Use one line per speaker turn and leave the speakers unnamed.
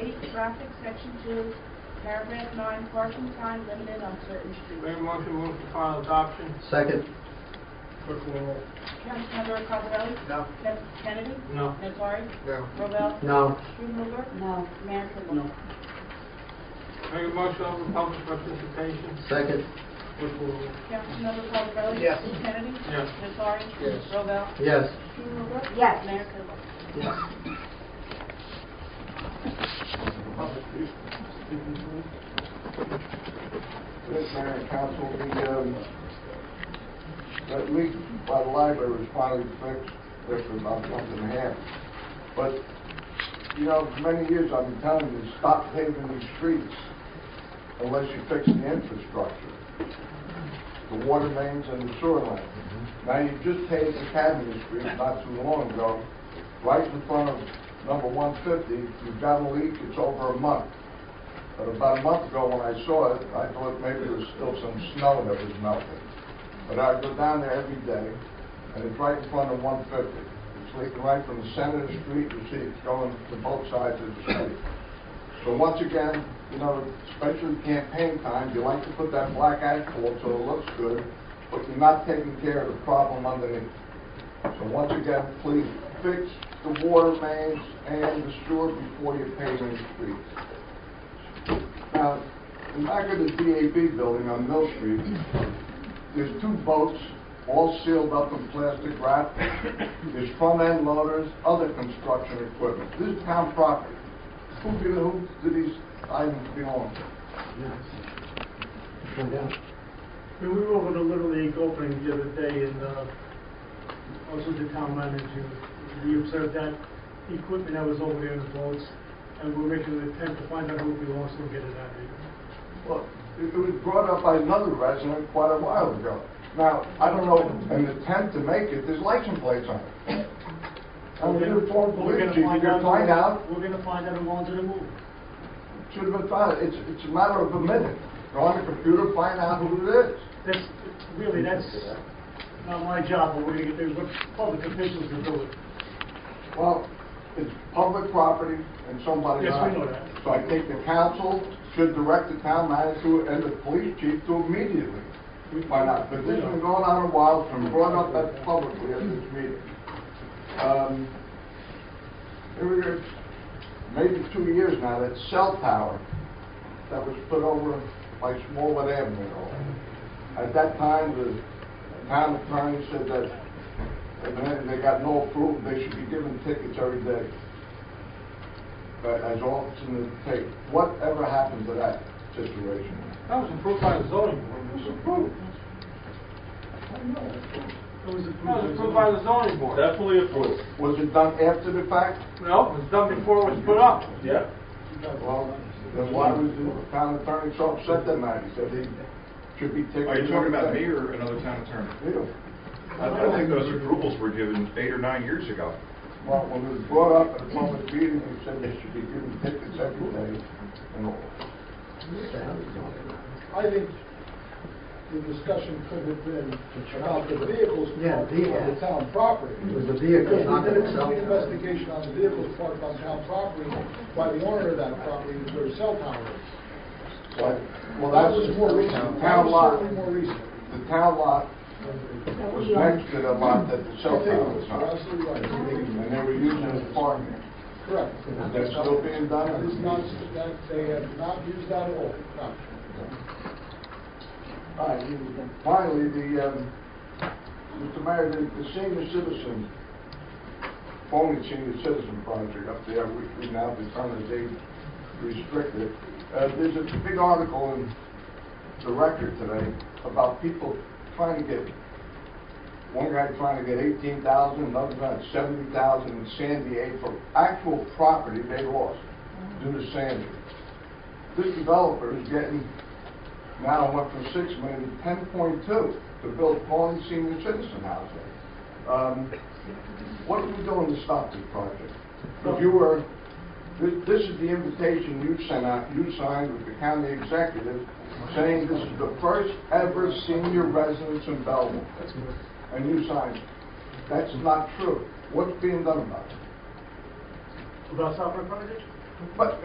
eight, traffic, section two, paragraph nine, parking time limited on certain streets.
Mayor motion move for final adoption.
Second.
Clerk will roll.
Councilmember Cosarelli?
No.
Ms. Kennedy?
No.
Nattari?
No.
Robel?
No.
Strumelberg?
No.
Mayor Kimball? No.
Mayor motion open public participation.
Second.
Clerk will roll.
Councilmember Cosarelli?
Yes.
Kennedy?
Yes.
Nattari?
Yes.
Robel?
Yes.
Strumelberg?
Yes.
Mayor Kimball?
Yes.
Good Mayor and Council, the, um, that leak by the library was finally fixed, there for about a month and a half. But, you know, for many years I've been telling you, stop paving these streets unless you fix the infrastructure, the water mains and the sewer line. Now, you just paved Academy Street not too long ago, right in front of number one fifty, you've got a leak, it's over a month. But about a month ago, when I saw it, I thought maybe there was still some snow that was melting. But I go down there every day, and it's right in front of 150. It's leaking right from the center of the street, you see it going to both sides of the street. So once again, you know, especially campaign time, you like to put that black asphalt so it looks good, but you're not taking care of the problem underneath. So once again, please fix the water mains and the sewer before you pave any streets. Now, in back of the DAB building on Mill Street, there's two boats, all sealed up in plastic wrap. There's front end loaders, other construction equipment. This is town property. Who do, who do these items belong to?
Find out.
I mean, we were over to Little League opening the other day, and uh, I was with the town manager. We observed that the equipment that was over there in the boats, and we we're making an attempt to find out who it belongs to and get it out of here.
Well, it it was brought up by another resident quite a while ago. Now, I don't know, an attempt to make it, there's license plates on it. I'm a uniformed
We're gonna
police chief, you can find out,
We're gonna find out who owns it and move.
should have been found, it's, it's a matter of a minute. Go on the computer, find out who it is.
That's, really, that's not my job, but we're gonna get, the public officials to do it.
Well, it's public property and somebody
Yes, we know
owns it.
that.
So I think the council should direct the town manager and the police chief to immediately find out. But this has been going on a while, it's been brought up at- publicly at this meeting. Um, Here we go, maybe two years now, that cell tower that was put over by Smallwood Avenue. At that time, the town attorney said that and then they got no approval, they should be given tickets every day. But as often as take, whatever happened to that situation?
That was approved by the zoning board.
It was approved.
It was approved.
No, it's approved by the zoning board.
Definitely approved.
Was it done after the fact?
No, it was done before it was put up.
Yeah.
Well, then why was the town attorney so upset that night? He said he should be tickets.
Are you talking about me
every day.
or another town attorney?
You.
I I think those approvals were given eight or nine years ago.
Well, when it was brought up at a public meeting, they said they should be given tickets every day and all.
I think the discussion could have been about the vehicles
Yeah,
parked on
vehicles.
the town property.
It was the vehicles,
Because
not the
we did a
cell
complete
tower.
investigation on the vehicles parked on town property by the owner of that property, where the cell tower is.
But, well,
That
that's
was more recent. That
Town
was
lot,
certainly more recent.
the town lot was next to the lot that the cell tower was
You're
on.
absolutely right.
And they were using it as parking.
Correct.
Is that still being done?
That is not, that, they have not used that at all. No.
All right, finally, the, um, Mr. Mayor, the the senior citizen, only senior citizen project up there, which we now determine is age restricted. Uh, there's a big article in the record today about people trying to get, one guy trying to get eighteen thousand, another guy seventy thousand in San Diego for actual property they lost due to Sandy. This developer is getting now it went from six million to ten point two to build Pawnee senior citizen housing. Um, What are we doing to stop this project? If you were, this, this is the invitation you sent out, you signed with the county executive, saying this is the first ever senior residence in Belleville. And you signed. it. That's not true. What's being done about it?
About South Park Project?
But